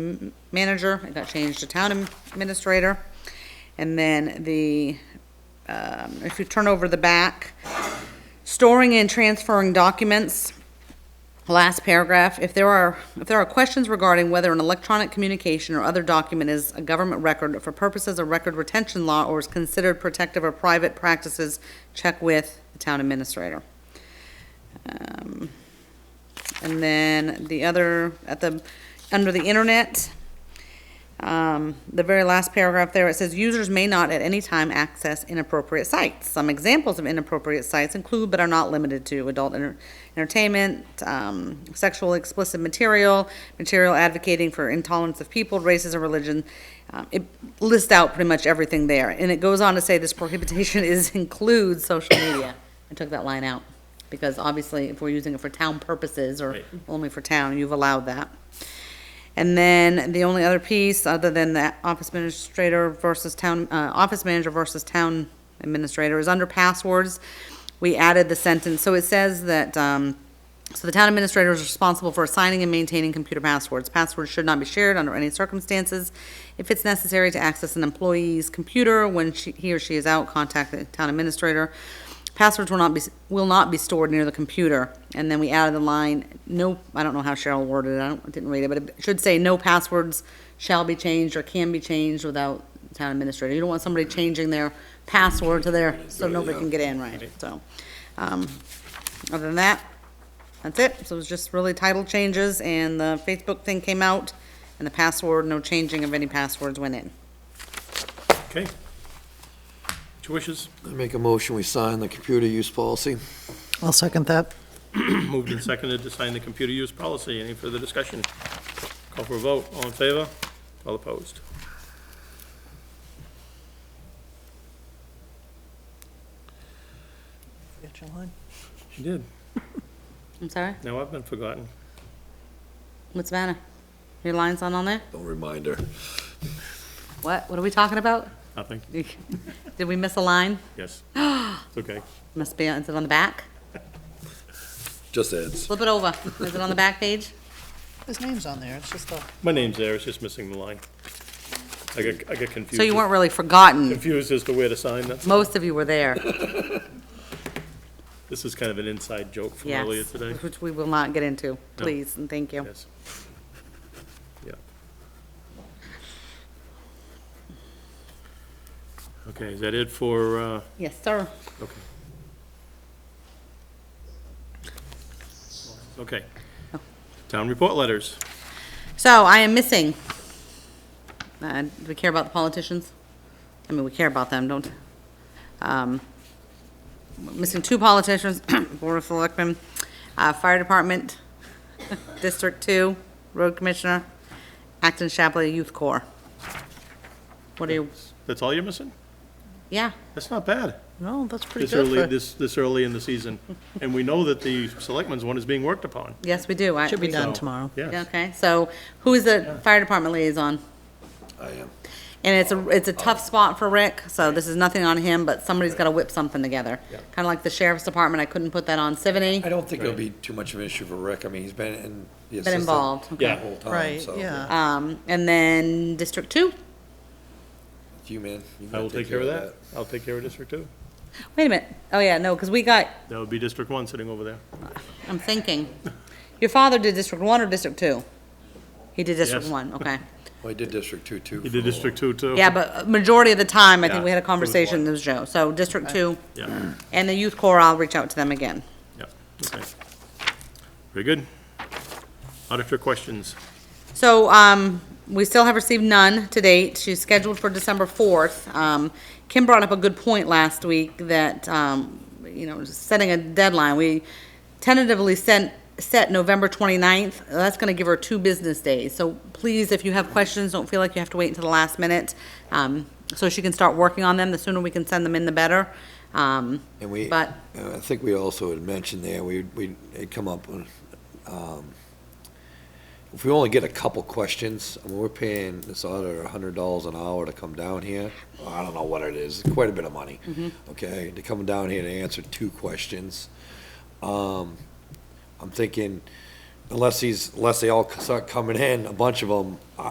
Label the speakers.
Speaker 1: m- manager, it got changed to town administrator. And then the, um, if you turn over the back, storing and transferring documents, last paragraph, if there are, if there are questions regarding whether an electronic communication or other document is a government record for purposes of record retention law or is considered protective or private practices, check with the town administrator. Um, And then the other, at the, under the internet, um, the very last paragraph there, it says, users may not at any time access inappropriate sites. Some examples of inappropriate sites include but are not limited to adult enter- entertainment, um, sexual explicit material, material advocating for intolerance of people, races, or religion. Um, it lists out pretty much everything there, and it goes on to say this prohibition is includes social media. I took that line out because obviously, if we're using it for town purposes or
Speaker 2: Right.
Speaker 1: only for town, you've allowed that. And then the only other piece, other than the office administrator versus town, uh, office manager versus town administrator, is under passwords. We added the sentence, so it says that, um, so the town administrator is responsible for assigning and maintaining computer passwords. Passwords should not be shared under any circumstances. If it's necessary to access an employee's computer when she, he or she is out, contact the town administrator. Passwords will not be, will not be stored near the computer. And then we added the line, no, I don't know how Cheryl worded it, I don't, didn't read it, but it should say, no passwords shall be changed or can be changed without town administrator. You don't want somebody changing their password to their, so nobody can get in, right? So, um, other than that, that's it. So it was just really title changes and the Facebook thing came out and the password, no changing of any passwords went in.
Speaker 2: Okay. Two wishes,
Speaker 3: I make a motion, we sign the computer use policy.
Speaker 4: I'll second that.
Speaker 2: moved and seconded to sign the computer use policy. Any further discussion? Call for a vote. All in favor? All opposed? She did.
Speaker 1: I'm sorry?
Speaker 2: Now I've been forgotten.
Speaker 1: What's the matter? Your line's not on there?
Speaker 3: Don't remind her.
Speaker 1: What? What are we talking about?
Speaker 2: Nothing.
Speaker 1: Did we miss a line?
Speaker 2: Ah, Yes. It's okay.
Speaker 1: Must be, is it on the back?
Speaker 3: Just adds.
Speaker 1: Flip it over. Is it on the back page?
Speaker 4: His name's on there, it's just the.
Speaker 2: My name's there. It's just missing the line. I got, I got confused.
Speaker 1: So you weren't really forgotten.
Speaker 2: Confused as to where to sign. That's,
Speaker 1: Most of you were there,
Speaker 2: this is kind of an inside joke from earlier
Speaker 1: yes.
Speaker 2: today.
Speaker 1: Which we will not get into, please, and thank you.
Speaker 2: Yes. Yeah. Okay, is that it for, uh,
Speaker 1: Yes, sir.
Speaker 2: okay. Okay. Town report letters.
Speaker 1: So I am missing. Uh, do we care about the politicians? I mean, we care about them, don't, um, missing two politicians, Board of Selectmen, uh, Fire Department, District Two, Road Commissioner, Acton Chapley Youth Corps. What do you,
Speaker 2: That's all you're missing?
Speaker 1: yeah,
Speaker 2: That's not bad.
Speaker 4: No, that's pretty
Speaker 2: This
Speaker 4: good
Speaker 2: early,
Speaker 4: for,
Speaker 2: this, this early in the season. And we know that the selectmen's one is being worked upon.
Speaker 1: yes, we do. I-
Speaker 4: should be
Speaker 1: we-
Speaker 4: done
Speaker 2: So,
Speaker 4: tomorrow.
Speaker 2: Yes.
Speaker 1: Okay, so who is the Fire Department liaison?
Speaker 3: I am.
Speaker 1: And it's a, it's a
Speaker 2: Oh.
Speaker 1: tough spot for Rick, so this is nothing on him, but somebody's gotta whip something together.
Speaker 3: Yeah.
Speaker 1: Kinda like the sheriff's department, I couldn't put that on Sivany,
Speaker 3: I don't think it'll be too much of an issue for Rick. I mean, he's been in. the
Speaker 1: been
Speaker 3: assistant
Speaker 1: involved.
Speaker 3: The
Speaker 2: Yeah.
Speaker 3: whole time,
Speaker 4: Right,
Speaker 3: so.
Speaker 4: yeah.
Speaker 1: Um, and then District Two,
Speaker 3: It's You, man. You
Speaker 2: I
Speaker 3: gotta
Speaker 2: will take care of that. I'll take care of District Two.
Speaker 1: wait a minute, oh yeah, no, cause we got,
Speaker 2: That would be District One sitting over there.
Speaker 1: I'm thinking, your father did District One or District Two? He did District
Speaker 2: Yes.
Speaker 1: One, okay.
Speaker 3: Well, he did District Two, too.
Speaker 2: He did District Two, too.
Speaker 1: Yeah, but uh, majority of the time, I think
Speaker 2: Yeah,
Speaker 1: we had a
Speaker 2: it was
Speaker 1: conversation,
Speaker 2: one.
Speaker 1: it was Joe, so District Two,
Speaker 2: Yeah,
Speaker 1: and the youth corps, I'll reach out to them again.
Speaker 2: yeah, okay. Very good. Auditor questions?
Speaker 1: So, um, we still have received none to date. She's scheduled for December fourth. Um, Kim brought up a good point last week that, um, you know, setting a deadline, we tentatively sent, set November 29th. That's gonna give her two business days. So please, if you have questions, don't feel like you have to wait until the last minute. Um, so she can start working on them. The sooner we can send them in, the better. Um,
Speaker 3: And we,
Speaker 1: But-
Speaker 3: uh, I think we also had mentioned there, we, we had come up with, um, if we only get a couple questions, I mean, we're paying this auditor a hundred dollars an hour to come down here. I don't know what it is, quite a bit of money, okay, to come down here to answer two questions. Um, I'm thinking, unless he's, unless they all start coming in, a bunch of them, I,